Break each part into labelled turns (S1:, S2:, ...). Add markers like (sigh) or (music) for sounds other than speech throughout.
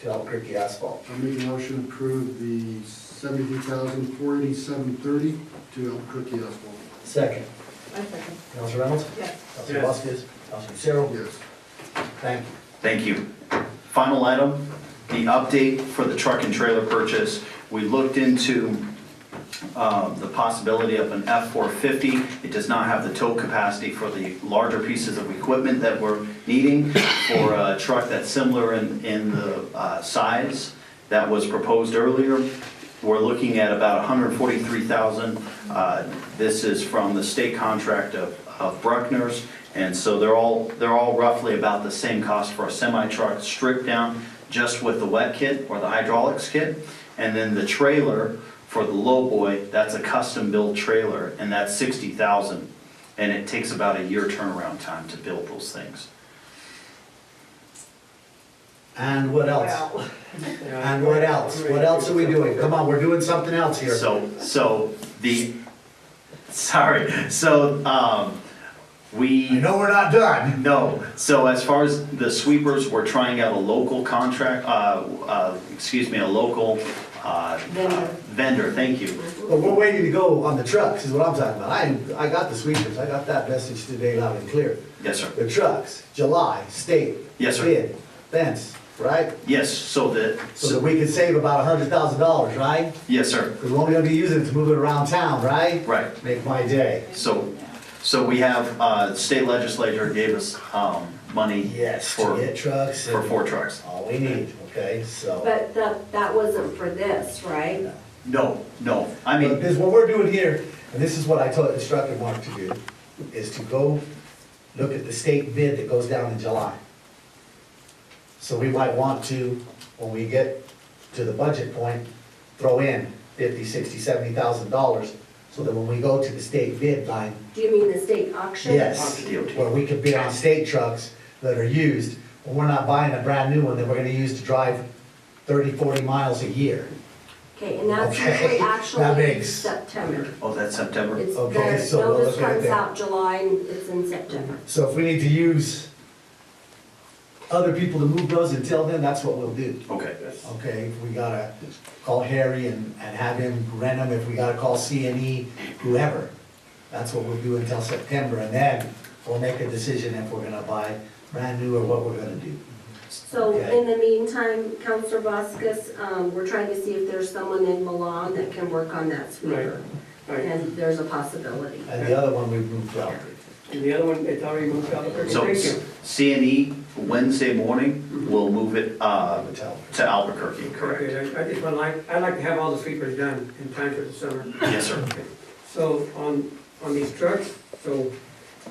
S1: to Albuquerque Asphalt.
S2: I'll make a motion to approve the seventy-two thousand, four eighty-seven thirty to Albuquerque Asphalt.
S1: Second.
S3: I second,
S1: Counselor Reynolds?
S3: yes.
S1: Counselor Vasquez? Counselor Lucero?
S2: Yes.
S1: Thank you.
S4: Thank you. Final item, the update for the truck and trailer purchase. We looked into um, the possibility of an F-450. It does not have the tow capacity for the larger pieces of equipment that we're needing for a truck that's similar in, in the uh, size that was proposed earlier. We're looking at about $143,000. Uh, This is from the state contract of of Bruckner's, and so they're all, they're all roughly about the same cost for a semi-truck stripped down just with the wet kit or the hydraulics kit. And then the trailer for the lowboy, that's a custom-built trailer, and that's 60,000. And it takes about a year turnaround time to build those things.
S1: And what else?
S3: Wow.
S1: And what else? What else are we doing? Come on, we're doing something else here.
S4: So, so the, sorry, so, um, we.
S1: You know we're not done.
S4: No, so as far as the sweepers, we're trying out a local contract, uh, uh, excuse me, a local, uh,
S3: Vendor.
S4: vendor, thank you.
S1: But we're waiting to go on the trucks, is what I'm talking about. I, I got the sweepers, I got that message today loud and clear.
S4: Yes, sir.
S1: The trucks, July, state.
S4: Yes, sir.
S1: Bid, fence, right?
S4: Yes, so the,
S1: So that we can save about a hundred thousand dollars, right?
S4: yes, sir,
S1: Because we're only gonna be using it to move it around town, right?
S4: right.
S1: Make my day.
S4: So, so we have, uh, state legislature gave us, um, money.
S1: Yes, to
S4: For,
S1: get trucks.
S4: for
S1: and
S4: four trucks.
S1: All we need, okay, so.
S5: But that, that wasn't for this, right?
S4: No, no, I
S1: But
S4: mean,
S1: this, what we're doing here, and this is what I told, instructed Mark to do, is to go look at the state bid that goes down in July. So we might want to, when we get to the budget point, throw in fifty, sixty, seventy thousand dollars, so that when we go to the state bid line,
S5: Do you mean the state auction?
S1: Yes,
S4: DOT.
S1: where we could bid on state trucks that are used, but we're not buying a brand new one that we're gonna use to drive 30, 40 miles a year.
S5: Okay, and that's
S1: Okay,
S5: usually
S1: that
S5: actually
S1: makes-
S5: September.
S4: oh, that's September?
S5: It's,
S1: Okay,
S5: the
S1: so we'll
S5: notice
S1: look at
S5: comes
S1: that.
S5: out July and it's in September.
S1: So if we need to use other people to move those until then, that's what we'll do.
S4: Okay,
S1: Okay, if we gotta call Harry and, and have him rent them, if we gotta call C and E, whoever. That's what we'll do until September, and then we'll make a decision if we're gonna buy brand new or what we're gonna do.
S5: So
S1: Okay.
S5: in the meantime, Counselor Vasquez, um, we're trying to see if there's someone in Milan that can work on that sweeper.
S6: Right.
S5: And there's a possibility.
S1: And the other one we've moved out.
S6: And the other one, it's already moved out of Albuquerque.
S4: so
S6: Thank you. Mm-hmm.
S4: C and E Wednesday morning, we'll move it, uh,
S1: Hotel.
S4: to Albuquerque, correct?
S6: Okay, I I just would like, I'd like to have all the sweepers done in time for the summer.
S4: Yes, sir.
S6: So on, on these trucks, so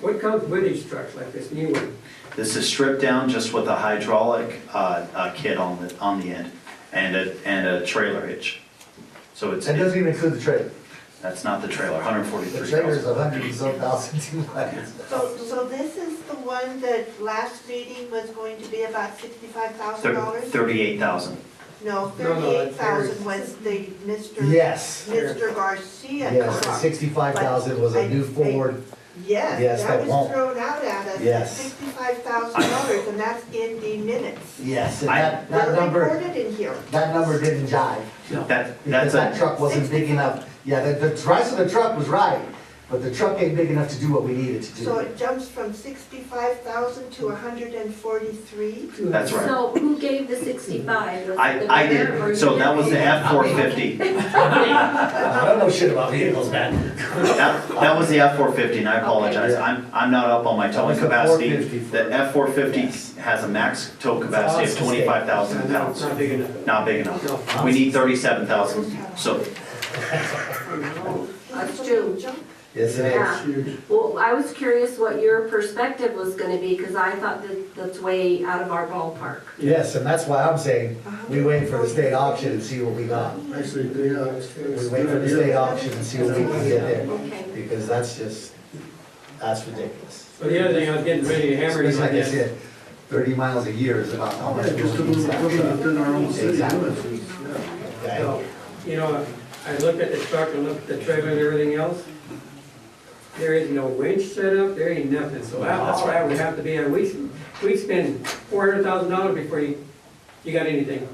S6: what comes with these trucks, like this new one?
S4: This is stripped down just with a hydraulic uh, uh, kit on the, on the end and a, and a trailer hitch. So it's,
S1: That doesn't even include the trailer.
S4: that's not the trailer,
S1: The trailer's
S4: 143,000.
S1: a hundred and some thousand two hundred.
S7: So, so this is the one that last reading was going to be about sixty-five thousand
S4: Thir-
S7: dollars?
S4: 38,000.
S7: No,
S6: No, no,
S7: thirty-eight
S6: that's
S7: thousand was the Mr.
S1: Yes.
S7: Mr. Garcia
S1: Yes,
S7: truck.
S1: sixty-five thousand was a new Ford, yes,
S7: Yes,
S1: that
S7: that was
S1: won't.
S7: thrown out at
S1: Yes.
S7: us, sixty-five thousand dollars, and that's in the minutes.
S1: yes, and
S4: I-
S1: that, that
S7: They're
S1: number,
S7: recorded in here.
S1: that number didn't jive. Because
S4: That, that's
S1: that
S4: a,
S1: truck wasn't big enough, yeah, the, the price of the truck was right, but the truck ain't big enough to do what we needed to
S7: So
S1: do. (laughs)
S7: it jumps from sixty-five thousand to hundred and forty-three.
S4: that's right.
S5: So who gave the sixty-five? Was it
S4: I,
S5: the
S4: I
S5: mayor or
S4: did, so
S5: you?
S4: that was the F-450.
S1: I don't know shit about vehicles, man.
S4: That, that was the F-450 and I apologize.
S1: Okay.
S4: I'm, I'm not up on my
S1: That
S4: towing
S1: was the
S4: capacity.
S1: 450 for-
S4: The
S1: Yes.
S4: F-450 has a max tow capacity
S1: It's
S4: of
S1: a mistake.
S4: 25,000
S6: No,
S4: pounds.
S6: it's Not big enough.
S4: Not big
S6: No.
S4: enough. We need 37,000. So
S5: That's true.
S1: Yes, it is.
S5: Yeah.
S2: That's huge.
S5: Well, I was curious what your perspective was gonna be, because I thought that that's way out of our ballpark.
S1: Yes, and that's why I'm saying,
S2: Uh-huh.
S1: we wait for the state auction and see what we got.
S2: Actually, they, uh. it's-
S1: We wait for the state auction and see what we can get there,
S5: Okay.
S1: because that's just, that's ridiculous.
S6: So the other thing, I was getting ready to hammer
S1: Especially
S6: you
S1: like
S6: on
S1: I
S6: this.
S1: said, thirty miles a year is about how much.
S2: Yeah, just a
S1: we
S2: little equipment
S1: use.
S2: within our own city
S1: Exactly.
S2: limits, is- yeah.
S1: Okay?
S6: So, you know, I looked at the truck, I looked at the trailer and everything else. There is no winch set up, there ain't nothing, so all all that would have to be, and we, we spend four hundred thousand dollars before you, you got anything.